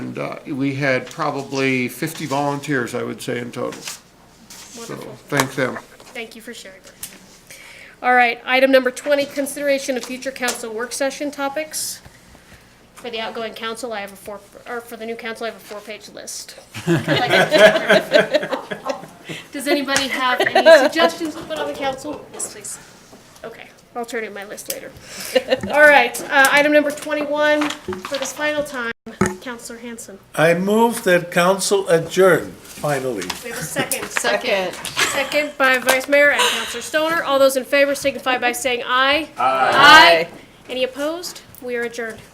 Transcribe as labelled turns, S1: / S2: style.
S1: uh, we had probably 50 volunteers, I would say, in total. So
S2: Wonderful.
S1: thank them.
S2: Thank you for sharing. that. All right, item number 20, consideration of future council work session topics. For the outgoing council, I have a four, or for the new council, I have a four-page list. Does anybody have any suggestions to put on the council? Yes, please. Okay, I'll turn in my list later. All right, uh, item number 21, for this final time, Counselor Hanson.
S3: I move that council adjourn, finally.
S2: We have a second.
S4: Second.
S2: Second by Vice Mayor and Counselor Stoner. All those in favor signify by saying aye.
S4: Aye.
S2: Any opposed? We are adjourned.